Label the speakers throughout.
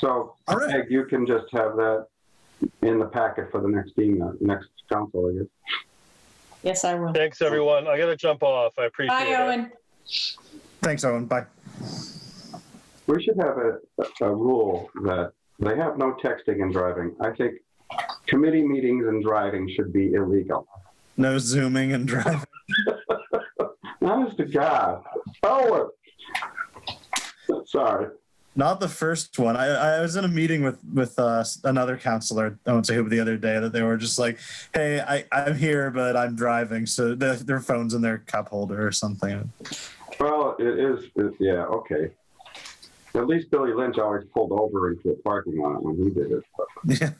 Speaker 1: So
Speaker 2: All right.
Speaker 1: Peg, you can just have that in the packet for the next email, next council, I guess.
Speaker 3: Yes, I will.
Speaker 4: Thanks, everyone. I gotta jump off. I appreciate
Speaker 3: Bye,
Speaker 4: it.
Speaker 3: Owen.
Speaker 2: Thanks, Owen. Bye.
Speaker 1: We should have a, a rule that they have no texting and driving. I think committee meetings and driving should be illegal.
Speaker 2: No zooming and driving.
Speaker 1: Honest to God. Oh, uh, sorry.
Speaker 2: Not the first one. I, I was in a meeting with with uh, another counselor. I won't say who the other day that they were just like, "Hey, I, I'm here, but I'm driving." So the, their phones in their cup holder or something.
Speaker 1: Well, it is, it- yeah, okay. At least Billy Lynch always pulled over into a parking lot when he did it.
Speaker 2: Yeah.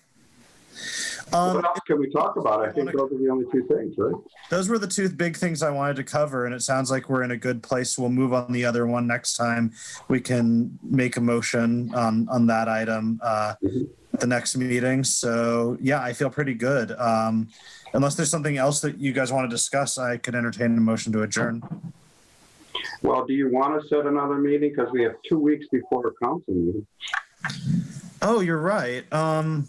Speaker 2: Um,
Speaker 1: What else can we talk about? I think those are the only two things, right?
Speaker 2: those were the two big things I wanted to cover, and it sounds like we're in a good place. We'll move on the other one next time. We can make a motion on on that item uh,
Speaker 1: Mhm.
Speaker 2: at the next meeting. So yeah, I feel pretty good. Um, unless there's something else that you guys want to discuss, I could entertain a motion to adjourn.
Speaker 1: Well, do you want to set another meeting? Because we have two weeks before a council meeting.
Speaker 2: Oh, you're right. Um,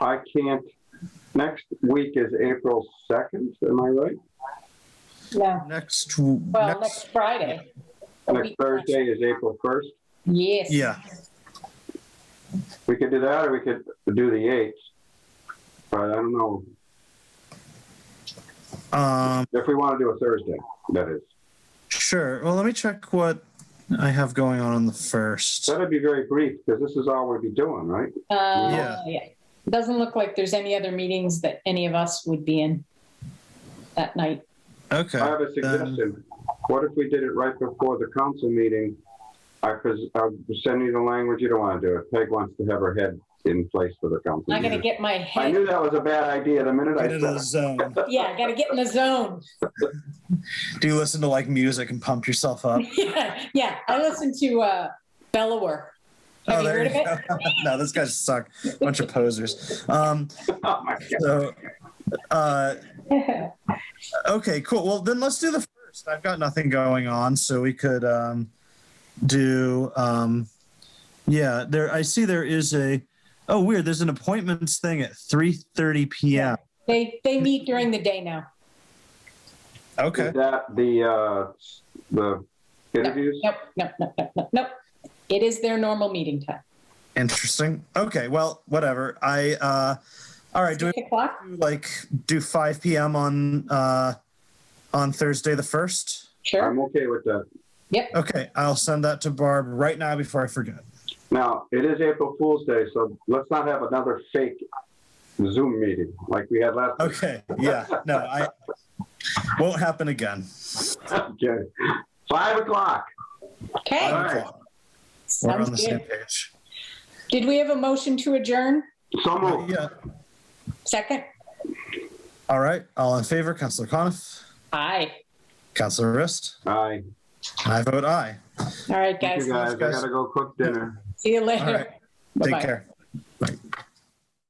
Speaker 1: I can't, next week is April 2nd, am I right?
Speaker 3: Yeah,
Speaker 2: next,
Speaker 3: well,
Speaker 2: next,
Speaker 3: next Friday. A
Speaker 1: Next
Speaker 3: week-
Speaker 1: Thursday is April 1st.
Speaker 3: Yes.
Speaker 2: yeah,
Speaker 1: We could do that or we could do the 8th. But I don't know,
Speaker 2: um,
Speaker 1: if we want to do a Thursday, that is.
Speaker 2: sure. Well, let me check what I have going on on the first.
Speaker 1: That'd be very brief because this is all we'll be doing, right?
Speaker 3: Uh,
Speaker 2: Yeah.
Speaker 3: yeah. Doesn't look like there's any other meetings that any of us would be in that night.
Speaker 2: Okay.
Speaker 1: I have a suggestion. What if we did it right before the council meeting? I, because I'm sending you the language, you don't want to do it. Peg wants to have her head in place for the council
Speaker 3: Not gonna
Speaker 1: meeting.
Speaker 3: get my
Speaker 1: I
Speaker 3: head,
Speaker 1: knew that was a bad idea the minute I
Speaker 2: Get into
Speaker 1: said
Speaker 2: the
Speaker 1: it.
Speaker 2: zone.
Speaker 3: yeah, I gotta get in the zone.
Speaker 2: Do you listen to like music and pump yourself
Speaker 1: Oh.
Speaker 2: up?
Speaker 3: Yeah, yeah. I listen to, uh, Bellower. Have you
Speaker 2: Oh, there
Speaker 3: heard of it?
Speaker 2: go. no, those guys suck. Bunch of posers. Um,
Speaker 1: Oh, my God.
Speaker 2: so, uh, okay, cool. Well, then let's do the first. I've got nothing going on, so we could um, do. Um, yeah, there. I see there is a. Oh, weird. There's an appointments thing at 3:30 p.m.
Speaker 3: They, they meet during the day now.
Speaker 2: Okay.
Speaker 1: Is that the, uh, the interviews?
Speaker 3: Nope, nope, nope, nope, nope, nope. It is their normal meeting time.
Speaker 2: Interesting. Okay. Well, whatever. I. Uh, all right. Do we
Speaker 3: Six o'clock?
Speaker 2: do, like do 5 p.m. on uh, on Thursday the first?
Speaker 3: Sure.
Speaker 1: I'm okay with that.
Speaker 2: Okay, I'll send that to Barb right now before I forget.
Speaker 1: Now, it is April Fool's Day, so let's not have another fake Zoom meeting like we had last.
Speaker 2: Okay, yeah, no, I won't happen again.
Speaker 1: Okay. Five o'clock.
Speaker 3: Okay.
Speaker 1: All
Speaker 2: Five
Speaker 1: right.
Speaker 2: o'clock. We're on the
Speaker 3: Sounds
Speaker 2: same
Speaker 3: good.
Speaker 2: page.
Speaker 3: Did we have a motion to adjourn?
Speaker 1: So moved.
Speaker 2: Yeah.
Speaker 3: Second?
Speaker 2: All right. All in favor, Councillor Coniff,
Speaker 3: Aye.
Speaker 2: Councillor Rist,
Speaker 1: Aye.
Speaker 2: and I vote aye.
Speaker 3: All right,
Speaker 1: Thank
Speaker 3: guys.
Speaker 1: you, guys. I
Speaker 2: guys.
Speaker 1: gotta go cook dinner.
Speaker 3: See you
Speaker 2: All right.
Speaker 3: later.
Speaker 2: Take
Speaker 3: Bye-bye.
Speaker 2: care.